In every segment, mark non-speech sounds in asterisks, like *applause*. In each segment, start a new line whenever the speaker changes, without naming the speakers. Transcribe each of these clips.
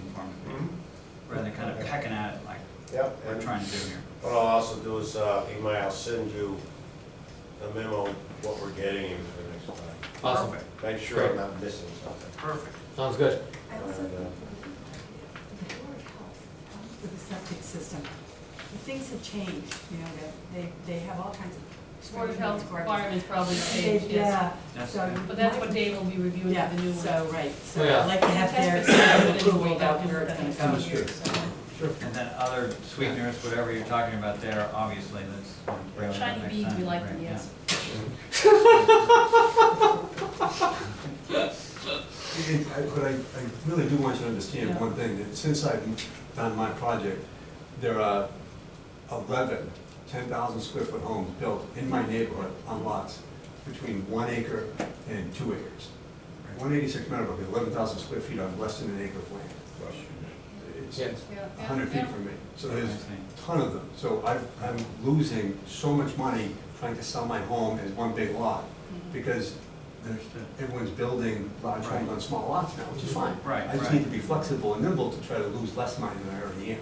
Mm-hmm.
Yep.
Hmm? we're
and
trying to do here.
What I'll also do is, uh, email, I'll send you a memo, what we're getting you for the next time.
Awesome,
Perfect,
Make sure I'm not missing something.
Perfect.
sounds good.
I also
And, uh,
think the Board of Health, um, with the septic system, things have changed, you know, that they, they have all kinds of.
Board of Health
requirements.
requirements probably
They-
changed, yes.
Yeah,
That's
so.
good.
But that's what Dave will be reviewing
Yeah,
for the new
so,
one.
right, so
Yeah.
I'd like to have their
Test
stamp
it.
approval about where it's gonna go.
Test it.
And then other sweeteners, whatever you're talking about there, obviously, let's bring it up
Shiny
next
beads, we
time,
like
right,
them,
yeah.
yes.
I- But I, I really do want you to understand one thing, that since I've done my project, there are 11 10,000 square foot homes built in my neighborhood on lots between one acre and two acres. 186 Meadowbrook, 11,000 square feet on less than an acre of land. It's
Yes.
Yeah, yeah,
100 feet
yeah.
from me, so
I
there's
see.
a ton of them. So I'm, I'm losing so much money trying to sell my home as one big lot, because there's
Understood.
everyone's building large homes
Right. Mm-hmm.
on small lots now, which is fine.
Right,
I just
right.
need to be flexible and nimble to try to lose less money than I already am.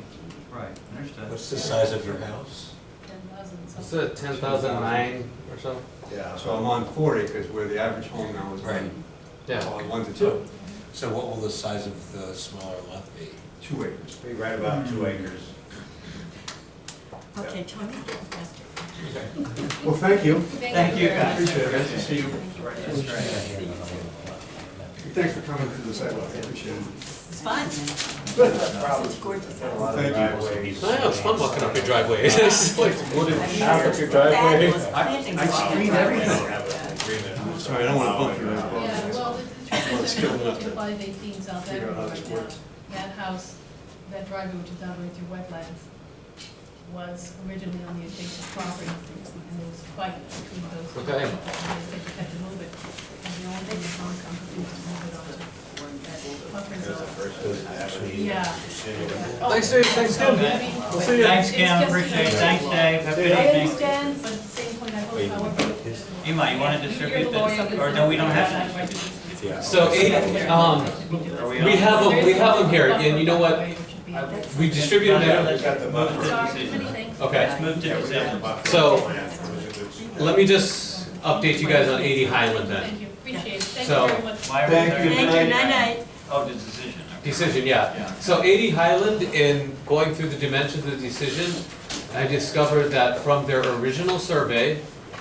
Right, understood.
What's the size of your house?
Ten thousand
It's
something.
a ten thousand nine or so?
Yeah.
So I'm on four acres where the average home now is
Right.
on,
Yeah.
on one to two,
So what will the size of the smaller lot be?
two acres.
Be right about two acres.
Okay, Tony, faster.
Well, thank you.
Thank you,
very much.
guys.
Appreciate it.
Good to see you. That's
Yeah,
right.
yeah, yeah, yeah.
Thanks for coming to the sidewalk, I appreciate it.
It's fun. Such gorgeous
Got a lot of
house.
Thank you.
driveways.
I know, it's fun walking up your driveway,
*laughs*
it's just like wooden.
I mean,
Now that
there's
your driveway-
fabulous
I-
plantings
I
along the
screen
driveway.
everything.
Agreement.
Sorry, I don't wanna bump you.
Yeah.
Yeah, well, the the truth is,
Skill
they're looking
enough
to
to
apply their teams out
figure out how
everywhere
this
now.
works.
That house, that driveway which is down right through wetlands, was originally on the adjacent property, and there was a fight between those two people,
Okay.
and they said you had to move it. And the only thing that's on company was to move it onto that buffer
Because the
zone.
first doesn't have any-
Yeah.
Insinuate.
Oh,
Thanks, Dave, thanks,
so,
Kim.
I mean,
We'll see you.
Thanks,
it's
Kim,
just-
appreciate it, thanks, Dave, have a
I
good evening.
understand, but at the same point, I hope I won't. be-
Emma, you wanna
You're the
distribute
lawyer,
this,
you
or
can-
no, we don't have
Yeah.
that?
Yeah.
So eight, um,
Are
We
on?
have 'em- we have 'em here, and you know what? we distributed
They
it,
got the buffer.
Sorry, many things.
okay.
Let's move to
Yeah, we got the
decision.
buffer.
So-
It was a good start.
Let me just update you guys on eighty Highland then.
Thank you, appreciate it, thank
So-
you very much.
Why are we
Thank
there?
you.
Thank you, night-night.
Oh, the decision. okay.
Decision, yeah. So eighty Highland, in going through the dimensions of the decision, I discovered that from their original survey,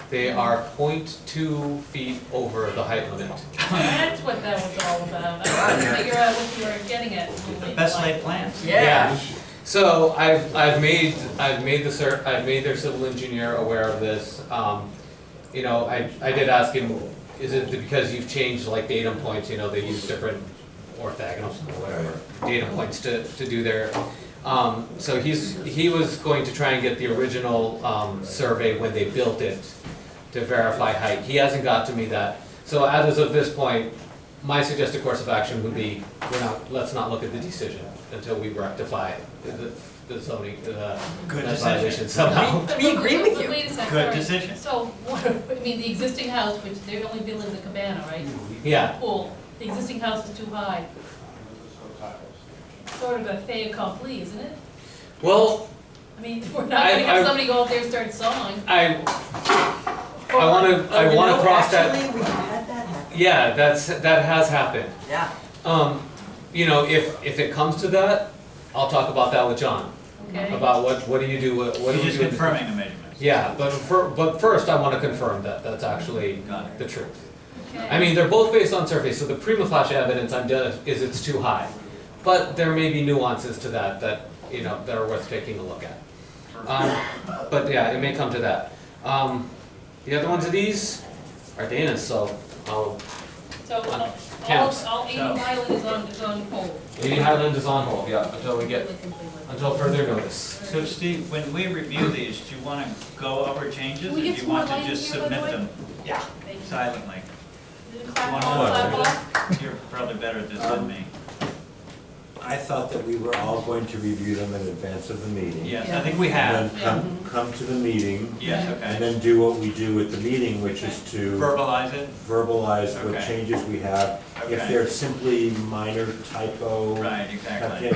they are 0.2 feet over the height limit.
That's what that was all about, I wanted to figure out what you were getting at.
The best laid plans.
Yeah. So I've, I've made, I've made the cer, I've made their civil engineer aware of this. Um, you know, I, I did ask him, is it because you've changed like datum points, you know, they use different orthogonals or whatever, data points to, to do their, um, so he's, he was going to try and get the original, um, survey when they built it to verify height. He hasn't got to me that. So as of this point, my suggested course of action would be, we're not, let's not look at the decision until we rectify the, the zoning, the
Good
that
decision.
violation somehow.
We agree with you.
Wait a second.
Good
sorry.
decision.
So, *laughs* what, I mean, the existing house, which they're only building the cabana, right?
Yeah,
Pool, the existing house is too high, sort of a fait accompli, isn't it?
well,
I mean, *laughs* we're not gonna
I- I-
have somebody go up there and start sawing.
I, I wanna, I
Oh, you
wanna
know,
cross that,
Actually, we had that happen.
yeah, that's, that has happened.
Yeah.
Um, you know, if, if it comes to that, I'll talk about that with John,
Okay.
about what, what do you do, what what
You're
do you
just
do? in-
confirming the measurements.
Yeah, but fir, but first I wanna confirm that that's actually
Got it.
the truth.
Okay.
I mean, they're both based on surface, so the prima facie evidence I'm done is it's too high. But there may be nuances to that that, you know, that are worth taking a look at. Um, but yeah, it may come to that. Um, the other ones of these are Dana's, so I'll,
So, all, all-
Counts.
all eighty
So-
Highland is on, is on hold.
Lady Highland is on hold, yeah, until we get,
Well,
until further notice.
So Steve, when we review these, do you wanna go over changes, or
Will
do
we get
you
some more
want to
light in
just
here, by the
submit
way?
them
Yeah.
silently?
Clap,
One more.
clap, clap.
You're probably better at this
Um,
than me.
I thought that we were all going to review them in advance of the meeting.
Yes, I think we
And
have.
then come, come to the meeting,
Yes,
and
okay.
then do what we do at the meeting, which is to
Verbalize it,
verbalize what
Okay.
changes we have. If
Okay.
they're simply minor typo.
right,
tuck
exactly.
in